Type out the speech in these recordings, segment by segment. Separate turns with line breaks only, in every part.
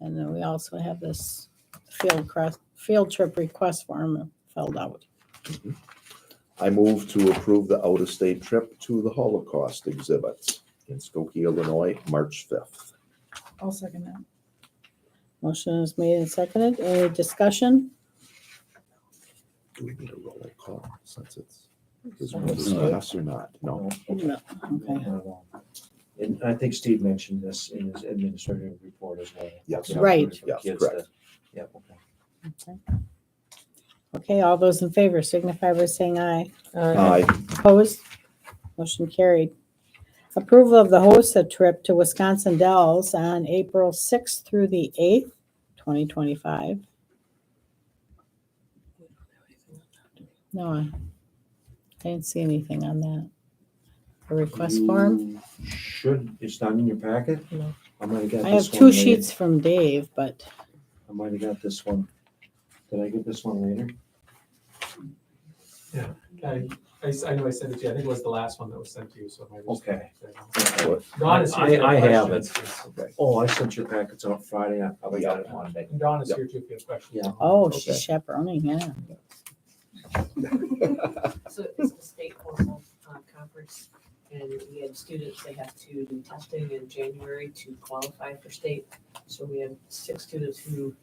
And then we also have this field crest, field trip request form filled out.
I move to approve the out-of-state trip to the Holocaust exhibits in Skokie, Illinois, March fifth.
I'll second that.
Motion is made and seconded. Any discussion?
Do we need a roll call since it's, is one of the yes or not? No.
No, Okay.
Not at all. Um, And I think Steve mentioned this in his administrative report as well.
Yes.
Right.
For kids
Yes, correct.
to- Yeah, okay.
Okay, all those in favor signify by saying aye.
Aye.
Opposed? Motion carried. Approval of the HOSA trip to Wisconsin Dells on April 6th through the 8th, 2025. No, I didn't see anything on that. A request form?
You Should, it's not in your packet?
No.
I might have got this
I
one.
have two
later.
sheets from Dave, but
I might have got this one. Did I get this one later?
I, I s- I know I sent it to you. I think it was the last one that was sent to you, so it might. just-
Okay.
Dawn is here. if you
I- I have
questions.
Oh, I sent your packets out Friday. I probably got it Monday.
And Dawn is
Yep.
here too if you have questions.
Yeah.
oh,
Okay.
she's chaperoning, yeah.
So it's a state formal uh, conference, and we had students, they have to do testing in January to qualify for state. So we had six students who,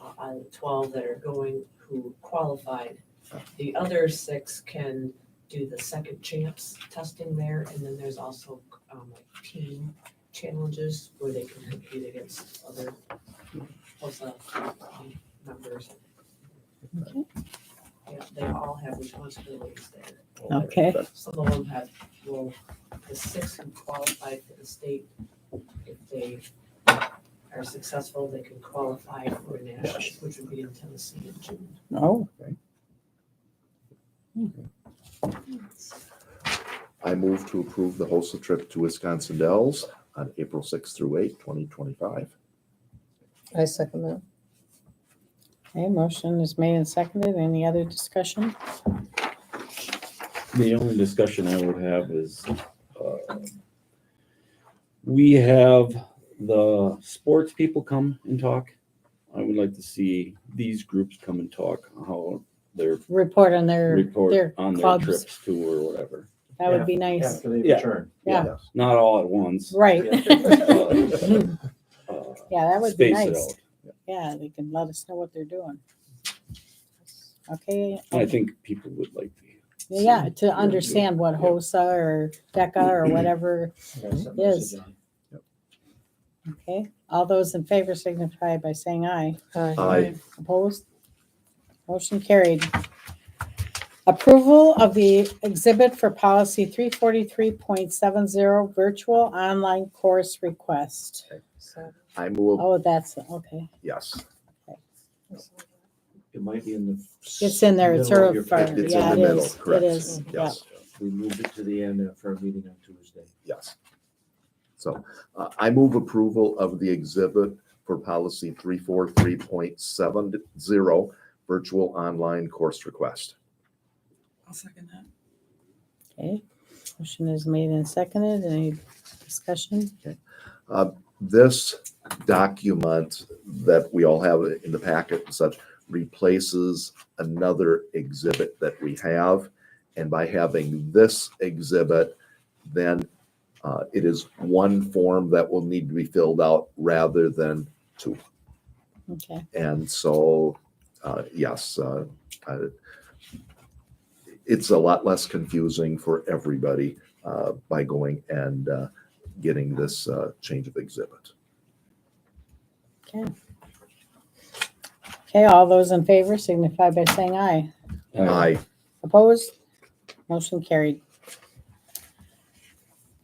uh, out of the twelve that are going, who qualified. The other six can do the second chance testing there, and then there's also um, like team challenges where they can compete against other HOSA um, members.
Okay.
Yeah, they all have responsibilities there.
Okay,
Some of them have, well, the six who qualified for the state, if they are successful, they can qualify for nationals, which would be in Tennessee in June.
oh,
I move to approve the HOSA trip to Wisconsin Dells on April sixth through eighth, twenty twenty-five.
I second that.
okay, motion is made and seconded. Any other discussion?
The only discussion I would have is, uh, we have the sports people come and talk. I would like to see these groups come and talk, how their
Report on their, their
report on their
clubs.
trips to or whatever.
That would be nice.
After they
Yeah.
return.
Yeah.
Not all at once.
Right.
Uh,
Yeah,
uh,
that would be
space it
nice. Yeah, they can let us know what they're doing. Okay,
out. I think people would like to.
yeah,
see.
to understand what HOSA or DECA or whatever,
I gotta send a
Yes.
message on.
okay? All those in favor signify by saying aye.
Aye.
Opposed? Motion carried. Approval of the exhibit for policy three forty-three point seven zero, virtual online course request.
So-
I move,
Oh, that's, okay.
yes.
It might be in the.
It's in there, it's
middle of
her,
your
fire.
packet.
It's
yeah, it
in the middle,
is, it
correct.
is, yeah.
Yes,
We moved it to the end for a meeting on Tuesday.
yes. So uh, I move approval of the exhibit for policy three four three point seven zero, virtual online course request.
I'll second that.
Okay, motion is made and seconded. Any discussion?
this document that we all have in the packet and such replaces another exhibit that we have. And by having this exhibit, then uh, it is one form that will need to be filled out rather than,
Okay,
and so, uh, yes, uh, I- it's a lot less confusing for everybody uh, by going and uh, getting this uh, change of exhibit.
okay, all those in favor signify by saying aye.
Aye.
Opposed? Motion carried.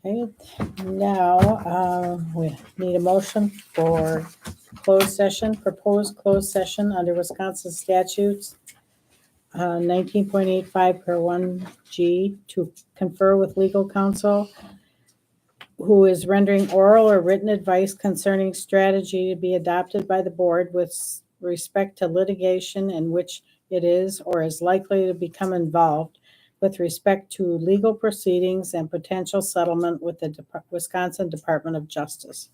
Okay, now, uh, we need a motion for closed session, proposed closed session under Wisconsin statutes uh, 19.85 per 1G to confer with legal counsel who is rendering oral or written advice concerning strategy to be adopted by the board with respect to litigation in which it is or is likely to become involved with respect to legal proceedings and potential settlement with the Dep- Wisconsin Department of Justice.